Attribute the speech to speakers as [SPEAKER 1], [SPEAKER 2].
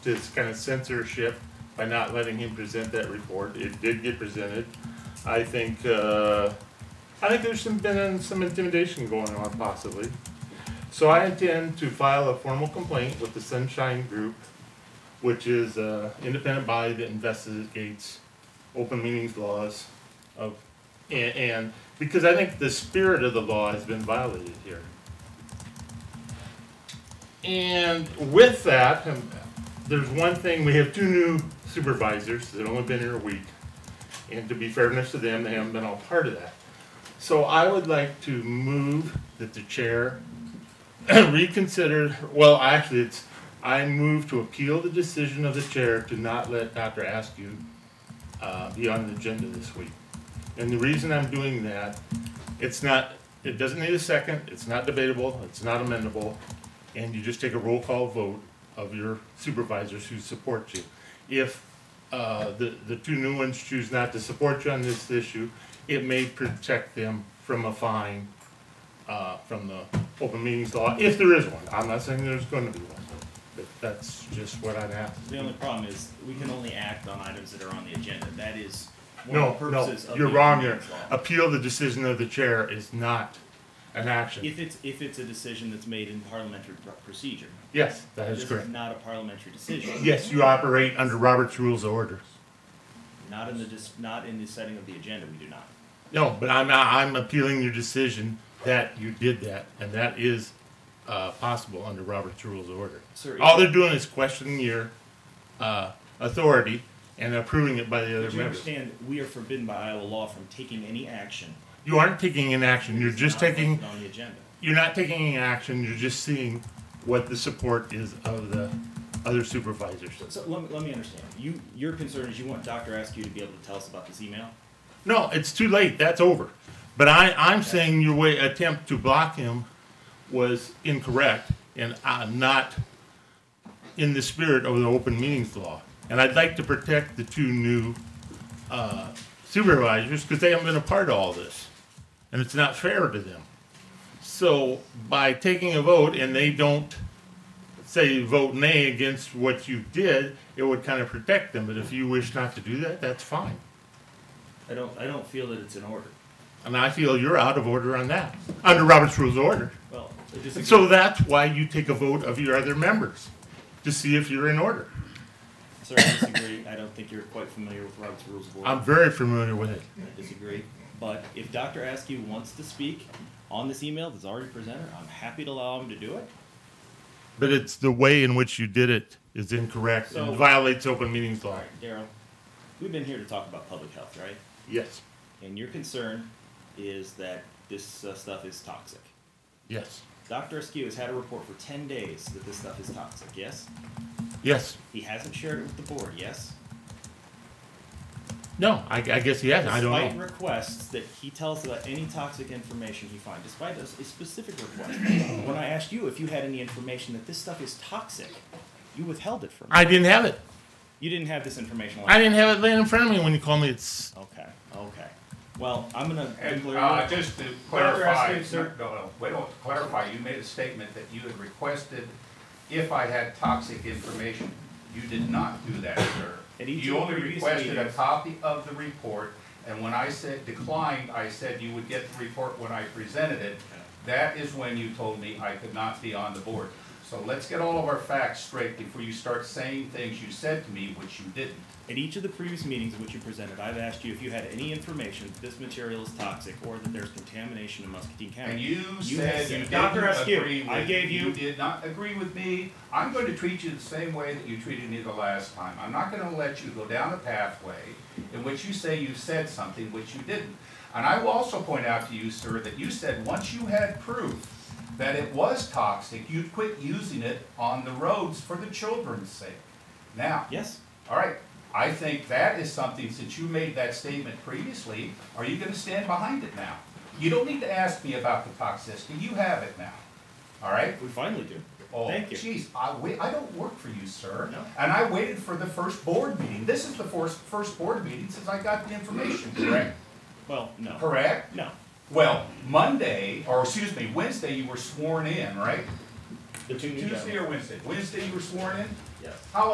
[SPEAKER 1] this kind of censorship by not letting him present that report. It did get presented. I think, uh, I think there's some, been some intimidation going on possibly. So I intend to file a formal complaint with the Sunshine Group, which is an independent body that investigates open meetings laws of, and, and, because I think the spirit of the law has been violated here. And with that, um, there's one thing, we have two new supervisors that have only been here a week. And to be fairness to them, they haven't been all part of that. So I would like to move that the chair reconsider, well, actually, it's, I move to appeal the decision of the chair to not let Dr. Askew uh, be on the agenda this week. And the reason I'm doing that, it's not, it doesn't need a second, it's not debatable, it's not amendable, and you just take a roll call vote of your supervisors who support you. If uh, the, the two new ones choose not to support you on this issue, it may protect them from a fine uh, from the open meetings law, if there is one. I'm not saying there's going to be one, but that's just what I'm asking.
[SPEAKER 2] The only problem is, we can only act on items that are on the agenda, that is one
[SPEAKER 1] No,
[SPEAKER 2] of the
[SPEAKER 1] no,
[SPEAKER 2] purposes of the.
[SPEAKER 1] you're wrong here.
[SPEAKER 2] Open Meetings Law.
[SPEAKER 1] Appeal the decision of the chair is not an action.
[SPEAKER 2] If it's, if it's a decision that's made in parliamentary pr- procedure.
[SPEAKER 1] Yes, that is
[SPEAKER 2] This
[SPEAKER 1] correct.
[SPEAKER 2] not a parliamentary decision,
[SPEAKER 1] Yes, you operate under Robert's Rules of Orders.
[SPEAKER 2] not in the, dis- not in the setting of the agenda, we do not.
[SPEAKER 1] No, but I'm, I'm appealing your decision that you did that, and that is, uh, possible under Robert's Rules of Order.
[SPEAKER 2] Sir,
[SPEAKER 1] All they're doing is questioning your, uh, authority and approving it by the other
[SPEAKER 2] But you
[SPEAKER 1] members.
[SPEAKER 2] understand, we are forbidden by Iowa law from taking any action.
[SPEAKER 1] You aren't taking an action, you're
[SPEAKER 2] that's
[SPEAKER 1] just
[SPEAKER 2] not
[SPEAKER 1] taking,
[SPEAKER 2] listed On the agenda.
[SPEAKER 1] you're not taking any action, you're just seeing what the support is of the other supervisors.
[SPEAKER 2] So, so let me, let me understand, you, your concern is you want Dr. Askew to be able to tell us about this email?
[SPEAKER 1] No, it's too late. That's over. But I, I'm saying your way attempt to block him was incorrect and uh, not in the spirit of the open meetings law. And I'd like to protect the two new uh, supervisors because they haven't been a part of all this, and it's not fair to them. So by taking a vote and they don't say vote nay against what you did, it would kind of protect them. But if you wish not to do that, that's fine.
[SPEAKER 2] I don't, I don't feel that it's in order.
[SPEAKER 1] And I feel you're out of order on that, under Robert's Rules of Order.
[SPEAKER 2] Well, I disagree.
[SPEAKER 1] And so that's why you take a vote of your other members, to see if you're in order.
[SPEAKER 2] Sir, I disagree. I don't think you're quite familiar with Robert's Rules of Order.
[SPEAKER 1] I'm very familiar with it.
[SPEAKER 2] I disagree. But if Dr. Askew wants to speak on this email that's already presented, I'm happy to allow him to do it.
[SPEAKER 1] But it's the way in which you did it is incorrect
[SPEAKER 2] So-
[SPEAKER 1] and violates open meetings
[SPEAKER 2] All
[SPEAKER 1] law.
[SPEAKER 2] right, Daryl, we've been here to talk about public health, right?
[SPEAKER 1] Yes,
[SPEAKER 2] And your concern is that this uh, stuff is toxic.
[SPEAKER 1] yes,
[SPEAKER 2] Dr. Askew has had a report for 10 days that this stuff is toxic, yes?
[SPEAKER 1] yes.
[SPEAKER 2] He hasn't shared it with the board, yes?
[SPEAKER 1] No, I, I guess he has. I
[SPEAKER 2] Despite
[SPEAKER 1] don't know.
[SPEAKER 2] requests that he tells about any toxic information he finds, despite a, a specific request, when I asked you if you had any information that this stuff is toxic, you withheld it from me.
[SPEAKER 1] I didn't have it.
[SPEAKER 2] You didn't have this information.
[SPEAKER 1] I didn't have it laying in front of me when you called me. It's,
[SPEAKER 2] Okay, okay. Well, I'm gonna.
[SPEAKER 3] And
[SPEAKER 2] declare-
[SPEAKER 3] uh, just to
[SPEAKER 2] Dr.
[SPEAKER 3] clarify,
[SPEAKER 2] Askew, sir.
[SPEAKER 3] no, no, wait, to clarify, you made a statement that you had requested if I had toxic information. You did not do that, sir.
[SPEAKER 2] At each
[SPEAKER 3] You
[SPEAKER 2] of the
[SPEAKER 3] only
[SPEAKER 2] previous
[SPEAKER 3] requested a
[SPEAKER 2] meetings.
[SPEAKER 3] copy of the report, and when I said declined, I said you would get the report when I presented it. That is when you told me I could not be on the board. So let's get all of our facts straight before you start saying things you said to me, which you didn't.
[SPEAKER 2] At each of the previous meetings in which you presented, I've asked you if you had any information that this material is toxic or that there's contamination in Muscatine County.
[SPEAKER 3] And you
[SPEAKER 2] have
[SPEAKER 3] said you
[SPEAKER 2] Dr.
[SPEAKER 3] didn't
[SPEAKER 2] Askew,
[SPEAKER 3] agree with.
[SPEAKER 2] I gave you.
[SPEAKER 3] did not agree with me. I'm going to treat you the same way that you treated me the last time. I'm not going to let you go down a pathway in which you say you said something which you didn't. And I will also point out to you, sir, that you said once you had proof that it was toxic, you'd quit using it on the roads for the children's sake. Now,
[SPEAKER 2] Yes.
[SPEAKER 3] all right, I think that is something, since you made that statement previously, are you gonna stand behind it now? You don't need to ask me about the toxicity, you have it now, all right?
[SPEAKER 2] We finally do.
[SPEAKER 3] Oh,
[SPEAKER 2] Thank you.
[SPEAKER 3] Geez, I wait, I don't work for you, sir.
[SPEAKER 2] No.
[SPEAKER 3] And I waited for the first board meeting, this is the first, first board meeting since I got the information, correct?
[SPEAKER 2] Well, no.
[SPEAKER 3] Correct?
[SPEAKER 2] No.
[SPEAKER 3] Well, Monday, or excuse me, Wednesday, you were sworn in, right?
[SPEAKER 2] The two new
[SPEAKER 3] Tuesday
[SPEAKER 2] gentlemen.
[SPEAKER 3] or Wednesday? Wednesday you were sworn in?
[SPEAKER 2] Yes.
[SPEAKER 3] How